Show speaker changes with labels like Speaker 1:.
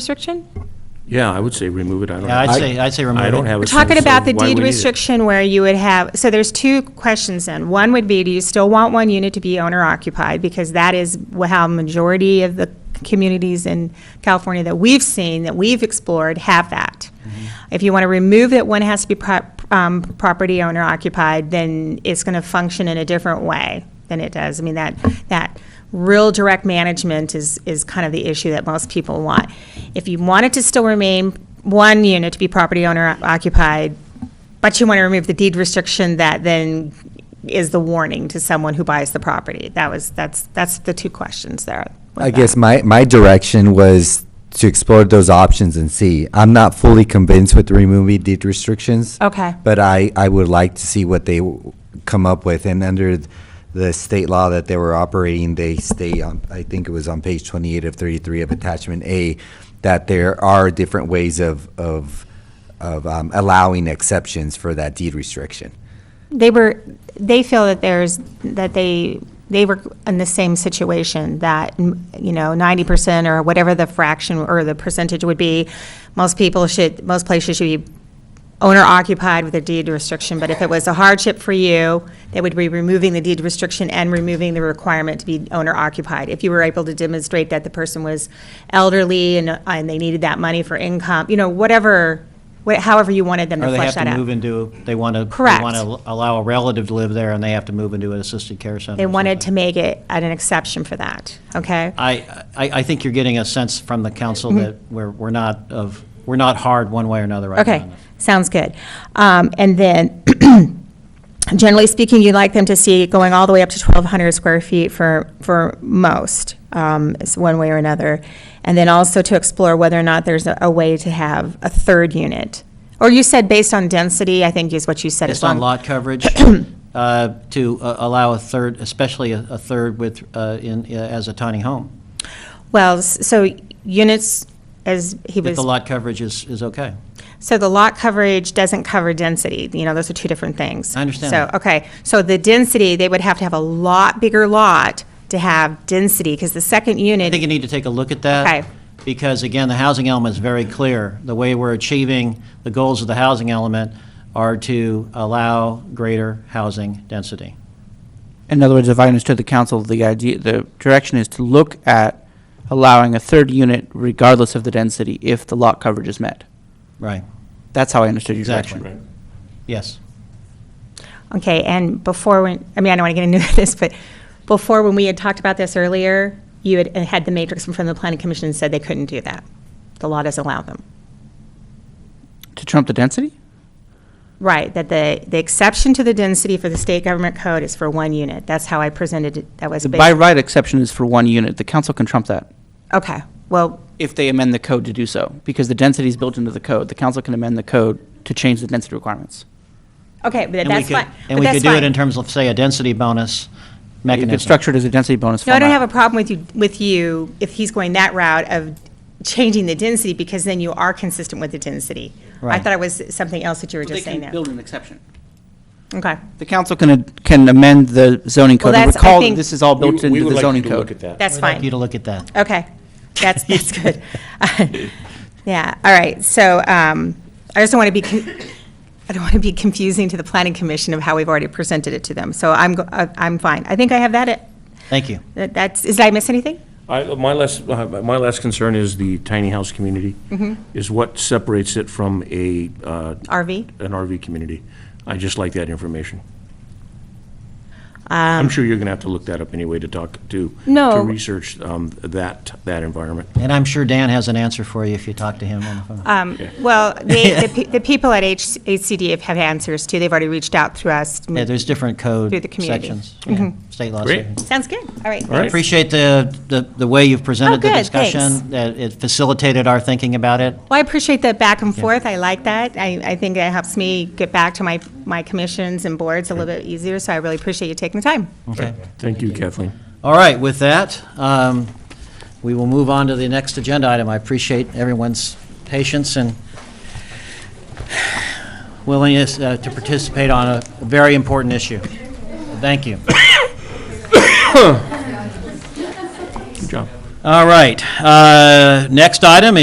Speaker 1: restriction?
Speaker 2: Yeah, I would say remove it, I don't.
Speaker 3: Yeah, I'd say- I'd say remove
Speaker 2: I don't
Speaker 3: it.
Speaker 2: have
Speaker 1: We're
Speaker 2: a
Speaker 1: talking
Speaker 2: sense
Speaker 1: about
Speaker 2: of
Speaker 1: the
Speaker 2: why we
Speaker 1: deed
Speaker 2: need it.
Speaker 1: restriction where you would have, so there's two questions then. One would be, do you still want one unit to be owner occupied? Because that is wh- how majority of the communities in California that we've seen, that we've explored, have that. If you want to remove that one has to be prop, um, property owner occupied, then it's going to function in a different way than it does. I mean, that, that real direct management is, is kind of the issue that most people want. If you want it to still remain one unit to be property owner occupied, but you want to remove the deed restriction that then is the warning to someone who buys the property. That was, that's, that's the two questions there. with
Speaker 4: I
Speaker 1: that.
Speaker 4: guess my, my direction was to explore those options and see. I'm not fully convinced with removing deed restrictions.
Speaker 1: Okay.
Speaker 4: But I, I would like to see what they w- come up with, and under the state law that they were operating, they state, on- I think it was on page twenty-eight of thirty-three of attachment A, that there are different ways of, of, of um, allowing exceptions for that deed restriction.
Speaker 1: They were, they feel that there's, that they, they were in the same situation, that, you know, ninety percent or whatever the fraction or the percentage would be, most people should, most places should be owner occupied with a deed restriction, but if it was a hardship for you, they would be removing the deed restriction and removing the requirement to be owner occupied. If you were able to demonstrate that the person was elderly and, and they needed that money for income, you know, whatever, wha- however you wanted them to
Speaker 3: Or they
Speaker 1: flesh
Speaker 3: have
Speaker 1: that out.
Speaker 3: to move into, they want to,
Speaker 1: Correct.
Speaker 3: they want to allow a relative to live there, and they have to move into an assisted care center.
Speaker 1: They
Speaker 3: or
Speaker 1: wanted to
Speaker 3: something.
Speaker 1: make it an exception for that, okay?
Speaker 3: I, I, I think you're getting a sense from the
Speaker 1: Mm-hmm.
Speaker 3: council that we're, we're not of, we're not hard one way or another right now.
Speaker 1: Okay, sounds good. Um, And then, generally speaking, you'd like them to see it going all the way up to 1,200 square feet for, for most, um, is one way or another. And then also to explore whether or not there's a a way to have a third unit. Or you said based on density, I think is what you said. as
Speaker 3: Based on
Speaker 1: long-
Speaker 3: lot coverage, uh, to uh, allow a third, especially a a third with, uh, in, uh, as a tiny home,
Speaker 1: Well, s- so units, as he was.
Speaker 3: if the lot coverage is, is okay.
Speaker 1: So the lot coverage doesn't cover density, you know, those are two different things.
Speaker 3: I understand
Speaker 1: So,
Speaker 3: that.
Speaker 1: okay, so the density, they would have to have a lot bigger lot to have density, because the second
Speaker 3: I think you
Speaker 1: unit,
Speaker 3: need to take a look at that.
Speaker 1: Okay.
Speaker 3: Because again, the housing element is very clear. The way we're achieving the goals of the housing element are to allow greater housing density.
Speaker 5: In other words, if I understood the council, the idea, the direction is to look at allowing a third unit regardless of the density if the lot coverage is met.
Speaker 3: Right,
Speaker 5: That's how I understood your
Speaker 3: Exactly.
Speaker 5: direction.
Speaker 3: yes.
Speaker 1: okay, and before, when, I mean, I don't want to get into this, but before, when we had talked about this earlier, you had, uh, had the matrix from the planning commission and said they couldn't do that. The law doesn't allow them.
Speaker 5: To trump the density?
Speaker 1: Right, that the, the exception to the density for the state government code is for one unit, that's how I presented it, that was.
Speaker 5: The
Speaker 1: ba-
Speaker 5: by right exception is for one unit. The council can trump that
Speaker 1: Okay, well,
Speaker 5: if they amend the code to do so, because the density is built into the code. The council can amend the code to change the density requirements.
Speaker 1: okay, but
Speaker 3: And we
Speaker 1: that's
Speaker 3: could-
Speaker 1: fine. but
Speaker 3: And we
Speaker 1: that's
Speaker 3: could do it
Speaker 1: fine.
Speaker 3: in terms of, say, a density bonus
Speaker 5: You
Speaker 3: mechanism.
Speaker 5: could structure it as a density bonus
Speaker 1: No, I
Speaker 5: format.
Speaker 1: don't have a problem with you, with you, if he's going that route of changing the density, because then you are consistent with the density. I
Speaker 3: Right.
Speaker 1: thought it was something else that you were
Speaker 5: They
Speaker 1: just saying
Speaker 5: can
Speaker 1: now.
Speaker 5: build an exception.
Speaker 1: Okay,
Speaker 5: The council can, can amend the zoning
Speaker 1: Well,
Speaker 5: code. And
Speaker 1: that's- I
Speaker 5: Recall,
Speaker 1: think-
Speaker 5: that this is all
Speaker 2: We-
Speaker 5: built into the
Speaker 2: We
Speaker 5: zoning
Speaker 2: would like
Speaker 5: code.
Speaker 2: you to look at that.
Speaker 1: that's
Speaker 3: We'd like you
Speaker 1: fine.
Speaker 3: to look at that.
Speaker 1: Okay, that's, that's good. Yeah, all right, so, um, I just don't want to be, con- I don't want to be confusing to the planning commission of how we've already presented it to them, so I'm, go- I- I'm fine. I think I have that, it-
Speaker 3: Thank you.
Speaker 1: that- that's, did I miss anything?
Speaker 2: I, my last, uh, my last concern is the tiny house community,
Speaker 1: Mm-hmm.
Speaker 2: is what separates it from a, uh,
Speaker 1: RV?
Speaker 2: an RV community. I just like that information. I'm sure you're going to have to look that up anyway to talk, to, to
Speaker 1: Um, No.
Speaker 2: research um, that, that environment.
Speaker 3: And I'm sure Dan has an answer for you if you talk to him on the phone.
Speaker 1: Um, Well, the, the pe- the people at H- HCD have answers too, they've already reached out through us.
Speaker 3: Yeah, there's different code
Speaker 1: Through the community. Mm-hmm.
Speaker 3: sections. Yeah, State laws.
Speaker 2: Great.
Speaker 1: Sounds good, all right.
Speaker 2: All right.
Speaker 3: Appreciate the, the the way you've presented the
Speaker 1: Oh, good,
Speaker 3: discussion.
Speaker 1: thanks.
Speaker 3: That It facilitated our thinking about it.
Speaker 1: Well, I appreciate that back and forth, I like that. I, I think it helps me get back to my, my commissions and boards a little bit easier, so I really appreciate you taking the time.
Speaker 3: Okay.
Speaker 2: Thank you, Kathleen.
Speaker 3: All right, with that, um, we will move on to the next agenda item. I appreciate everyone's patience and willingness uh, to participate on a very important issue. Thank you.
Speaker 2: Good job.
Speaker 3: All right, uh, next item